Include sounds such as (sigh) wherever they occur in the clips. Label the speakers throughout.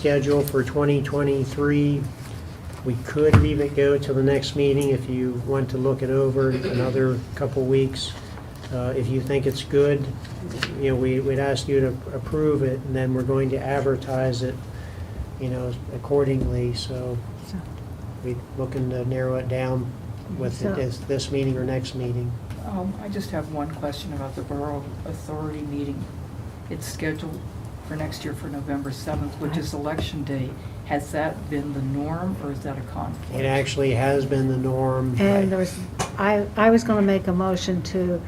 Speaker 1: schedule for 2023. We could leave it go till the next meeting if you want to look it over another couple weeks. Uh, If you think it's good, you know, we- we'd ask you to approve it, and then we're going to advertise it, you know, accordingly, so
Speaker 2: So,
Speaker 1: we're looking to narrow it down with
Speaker 2: So-
Speaker 1: this- this meeting or next meeting.
Speaker 3: Um, I just have one question about the Borough Authority meeting. It's scheduled for next year for November 7th, which is election day. Has that been the norm, or is that a conflict?
Speaker 1: It actually has been the norm.
Speaker 2: And there was, I, I was going to make a motion to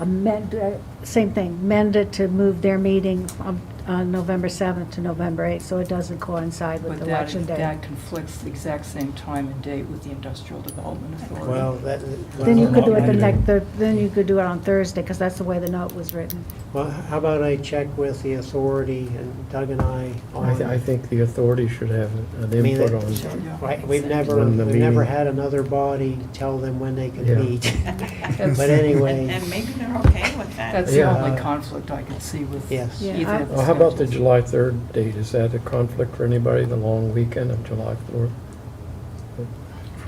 Speaker 2: amend, uh, same thing, amend it to move their meeting on on November 7th to November 8th, so it doesn't coincide
Speaker 3: But
Speaker 2: with
Speaker 3: that-
Speaker 2: Election Day.
Speaker 3: That conflicts the exact same time and date with the Industrial Development Authority.
Speaker 1: Well, that.
Speaker 2: Then you could do it the
Speaker 1: well,
Speaker 2: next, the- then you could do it on Thursday, because that's the way the note was written.
Speaker 1: Well, how about I check with the authority and Doug and I
Speaker 4: I, th- I
Speaker 1: on,
Speaker 4: think the authority should have an
Speaker 1: mean,
Speaker 4: input
Speaker 1: that-
Speaker 3: Sure,
Speaker 4: on,
Speaker 3: yeah.
Speaker 1: Right, we've never,
Speaker 4: When the
Speaker 1: we've never
Speaker 4: meeting-
Speaker 1: had another body tell them when they could
Speaker 4: Yeah.
Speaker 5: (laughs)
Speaker 1: meet. But anyway,
Speaker 5: And maybe they're okay with that.
Speaker 3: That's the
Speaker 4: Yeah.
Speaker 3: only conflict I could see with either
Speaker 1: Yes.
Speaker 2: Yeah,
Speaker 3: of
Speaker 2: I-
Speaker 3: the
Speaker 4: Well, Uh, how about the
Speaker 3: schedules.
Speaker 4: July 3rd date? Is that a conflict for anybody, the long weekend of July 4th?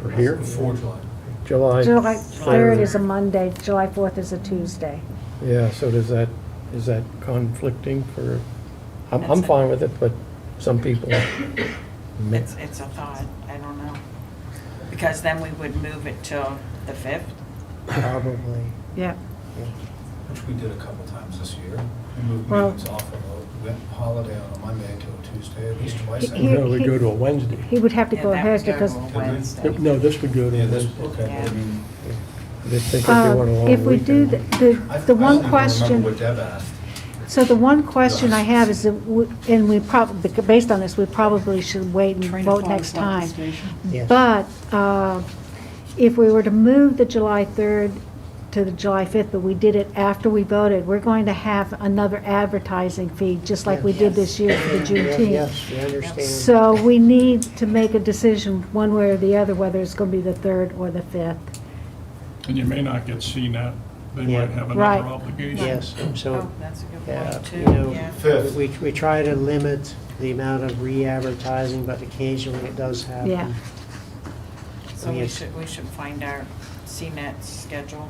Speaker 4: For here?
Speaker 6: Before July.
Speaker 4: July.
Speaker 2: July 3rd is a Monday, July 4th is a Tuesday.
Speaker 4: Yeah, so does that, is that conflicting for, I'm, I'm
Speaker 5: That's it.
Speaker 4: fine with it, but some people. may-
Speaker 5: It's, it's a thought, I don't know. Because then we would move it till the fifth.
Speaker 1: probably.
Speaker 2: Yeah.
Speaker 6: Which we did a couple times this year. We moved
Speaker 2: Well-
Speaker 6: meetings off of a wet holiday on a Monday to a Tuesday, at least twice.
Speaker 2: He-
Speaker 6: I
Speaker 2: he-
Speaker 7: No,
Speaker 6: think.
Speaker 7: we go to a Wednesday.
Speaker 2: He would have to
Speaker 5: Yeah,
Speaker 2: go
Speaker 5: that
Speaker 2: ahead
Speaker 5: would go
Speaker 2: because
Speaker 5: on Wednesday.
Speaker 7: No, this would go to
Speaker 6: Yeah,
Speaker 7: a
Speaker 6: this,
Speaker 7: Wednesday.
Speaker 6: okay, I mean,
Speaker 4: They think if you
Speaker 2: uh,
Speaker 4: want a long
Speaker 2: if we do, th-
Speaker 4: weekend.
Speaker 6: I I
Speaker 2: the, the
Speaker 6: don't
Speaker 2: one
Speaker 6: even remember
Speaker 2: question,
Speaker 6: what Deb asked.
Speaker 2: so the one question I have is, that w- and we probably, based on this, we probably should wait and
Speaker 3: Train of
Speaker 2: vote
Speaker 3: thought
Speaker 2: next
Speaker 3: is not the
Speaker 2: time. (laughs)
Speaker 3: station.
Speaker 1: Yes.
Speaker 2: But uh, if we were to move the July 3rd to the July 5th, but we did it after we voted, we're going to have another advertising fee, just like we did this year for the
Speaker 1: Yeah,
Speaker 2: Juneteenth.
Speaker 1: Yes, we understand.
Speaker 2: So we need to make a decision one way or the other, whether it's going to be the 3rd or the 5th.
Speaker 7: And you may not get CNET, they
Speaker 1: Yeah.
Speaker 7: might have
Speaker 2: Right.
Speaker 7: another obligation.
Speaker 1: Yes,
Speaker 5: Oh,
Speaker 1: so,
Speaker 5: that's a good
Speaker 1: yeah,
Speaker 5: point,
Speaker 1: you
Speaker 5: too,
Speaker 1: know,
Speaker 5: yeah.
Speaker 6: Fifth.
Speaker 1: we, we try to limit the amount of re-advertising, but occasionally it does happen.
Speaker 2: Yeah.
Speaker 5: So we
Speaker 1: yes.
Speaker 5: should, we should find our CNET schedule,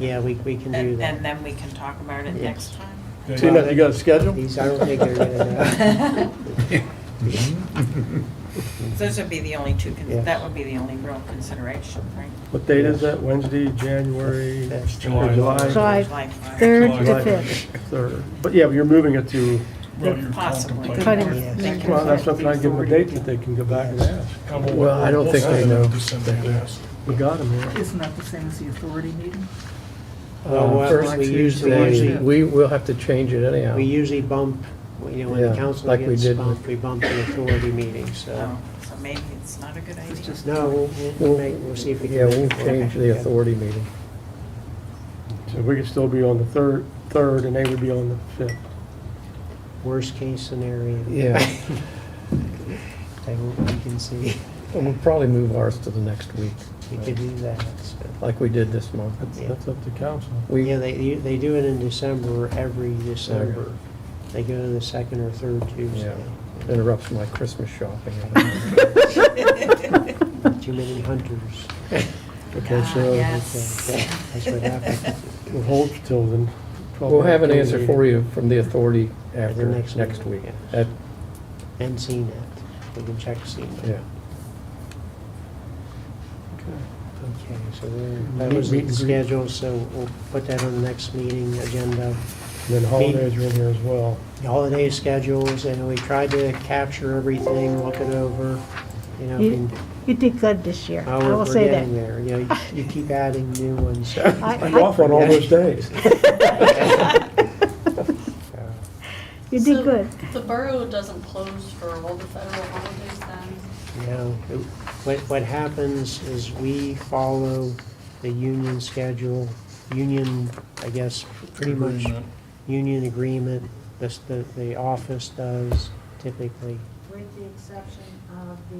Speaker 1: Yeah, we, we can do
Speaker 5: and,
Speaker 1: that.
Speaker 5: and then we can talk about it
Speaker 1: Yes.
Speaker 5: next time.
Speaker 7: They-
Speaker 1: See, now-
Speaker 7: Well,
Speaker 1: you got a
Speaker 4: schedule?
Speaker 1: These, I don't think they're gonna
Speaker 5: Those would be the only two, con-
Speaker 1: Yes.
Speaker 5: that would be the only real consideration, right?
Speaker 8: (laughs) What date is that? Wednesday, January,
Speaker 1: do
Speaker 8: or
Speaker 1: that.
Speaker 7: July.
Speaker 8: July
Speaker 2: July
Speaker 5: July fifth.
Speaker 2: 3rd
Speaker 7: July.
Speaker 2: to (laughs) 5th.
Speaker 8: 3rd. But yeah, but you're moving it to,
Speaker 7: you're
Speaker 5: Possibly.
Speaker 2: Cutting.
Speaker 7: contemplating.
Speaker 1: Yes.
Speaker 5: They can
Speaker 8: well, that's
Speaker 5: put it
Speaker 8: something I give them a
Speaker 5: authority.
Speaker 8: date that they can go back and ask.
Speaker 4: Well, I don't think they know.
Speaker 8: We got them here.
Speaker 3: Isn't that the same as the authority meeting?
Speaker 1: Uh, Well, what
Speaker 4: Um, First
Speaker 1: we usually,
Speaker 4: Tuesday,
Speaker 1: usually-
Speaker 4: we will have to change it anyhow.
Speaker 1: we usually bump, you know, when the
Speaker 4: Yeah,
Speaker 1: council
Speaker 4: like we
Speaker 1: gets
Speaker 4: did.
Speaker 1: bumped, we bump the authority meeting, so.
Speaker 5: Oh, So maybe it's not a good
Speaker 3: It's
Speaker 5: idea.
Speaker 3: just-
Speaker 1: No, we'll, we'll- we'll make, we'll see if we can.
Speaker 4: Yeah, we'll
Speaker 1: make it work.
Speaker 4: change the
Speaker 1: Yeah.
Speaker 4: authority meeting.
Speaker 8: So we could still be on the 3rd, 3rd, and they would be on the 5th.
Speaker 1: Worst case scenario.
Speaker 4: Yeah.
Speaker 1: (laughs) They will- we can see,
Speaker 4: And we'll probably move ours to the next week,
Speaker 1: we could do that, so.
Speaker 4: like we did this month.
Speaker 8: That's,
Speaker 1: Yeah.
Speaker 8: that's up to council.
Speaker 4: We,
Speaker 1: Yeah, they, they do it in December, every December. They go to the second or third Tuesday.
Speaker 4: interrupts my Christmas
Speaker 1: (laughs)
Speaker 4: shopping.
Speaker 2: (laughs)
Speaker 1: Too many
Speaker 4: (laughs)
Speaker 1: hunters.
Speaker 8: Okay,
Speaker 5: Ah,
Speaker 8: so
Speaker 5: Yes.
Speaker 1: That's
Speaker 5: (laughs)
Speaker 1: what happens.
Speaker 4: (laughs)
Speaker 8: we'll hold till then. 12
Speaker 4: We'll have an answer for you from the
Speaker 1: At
Speaker 4: authority
Speaker 1: the
Speaker 4: after,
Speaker 1: next
Speaker 4: next
Speaker 1: meeting,
Speaker 4: week.
Speaker 1: yeah.
Speaker 4: At-
Speaker 1: And CNET, we can check CNET.
Speaker 4: Yeah.
Speaker 1: Okay, so there- that was the schedule, so we'll put that on the next meeting agenda.
Speaker 8: Then holidays are in here as well.
Speaker 1: The Holiday schedules, and we tried to capture everything, look it over, you know,
Speaker 2: You
Speaker 1: and
Speaker 2: you did good this year,
Speaker 1: how
Speaker 2: I
Speaker 1: we're
Speaker 2: will
Speaker 1: we're
Speaker 2: say that.
Speaker 1: getting there. You know, you you keep adding new ones.
Speaker 2: (laughs) I-
Speaker 8: I'm off on all those days.
Speaker 1: so.
Speaker 2: (laughs) You did
Speaker 9: So,
Speaker 2: good.
Speaker 9: The borough doesn't close for all the federal holidays then?
Speaker 1: You know, it- what, what happens is we follow the union schedule, union, I guess, pretty much,
Speaker 7: Agreement.
Speaker 1: union agreement, this, the, the office does typically.
Speaker 10: with the exception of the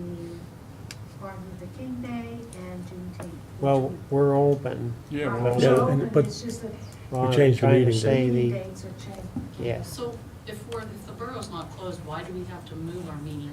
Speaker 10: Martin Luther King Day and Juneteenth. which
Speaker 1: Well, we're open.
Speaker 7: Yeah,
Speaker 10: are
Speaker 7: well,
Speaker 8: Yeah,
Speaker 10: open,
Speaker 8: and- but
Speaker 10: it's just that
Speaker 1: Well, I'm
Speaker 8: changed the
Speaker 1: trying to
Speaker 8: meeting
Speaker 1: say
Speaker 10: the
Speaker 1: the-
Speaker 10: dates are changed.
Speaker 1: Yeah,
Speaker 9: So if we're, if the borough's not closed, why do we have to move our meeting